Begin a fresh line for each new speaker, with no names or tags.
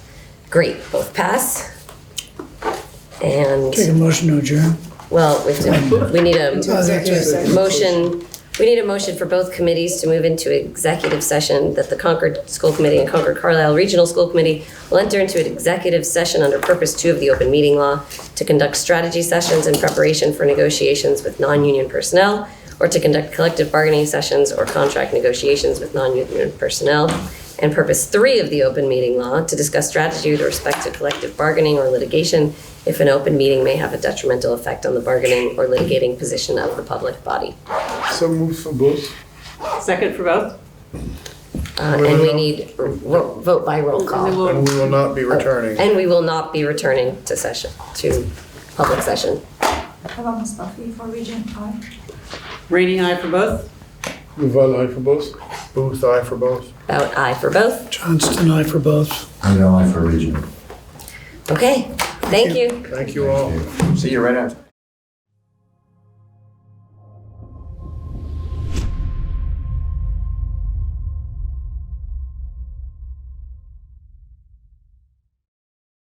Great, both pass. And,
Take a motion to adjourn.
well, we have to, we need a
Oh, that's right.
motion, we need a motion for both committees to move into executive session that the Concord School Committee and Concord Carlisle Regional School Committee will enter into an executive session under purpose two of the open meeting law to conduct strategy sessions in preparation for negotiations with non-union personnel or to conduct collective bargaining sessions or contract negotiations with non-union personnel. And purpose three of the open meeting law to discuss strategy with respect to collective bargaining or litigation if an open meeting may have a detrimental effect on the bargaining or litigating position of the public body.
So moves for both.
Second for both?
Uh, and we need r- ro- vote by roll call.
And we will not be returning.
And we will not be returning to session, to public session.
How about Ms. Buffy for Region Five?
Rainey, aye for both?
Duval, aye for both. Booth, aye for both.
About aye for both.
Johnston, aye for both.
I know, I for region.
Okay, thank you.
Thank you all.
See you right after.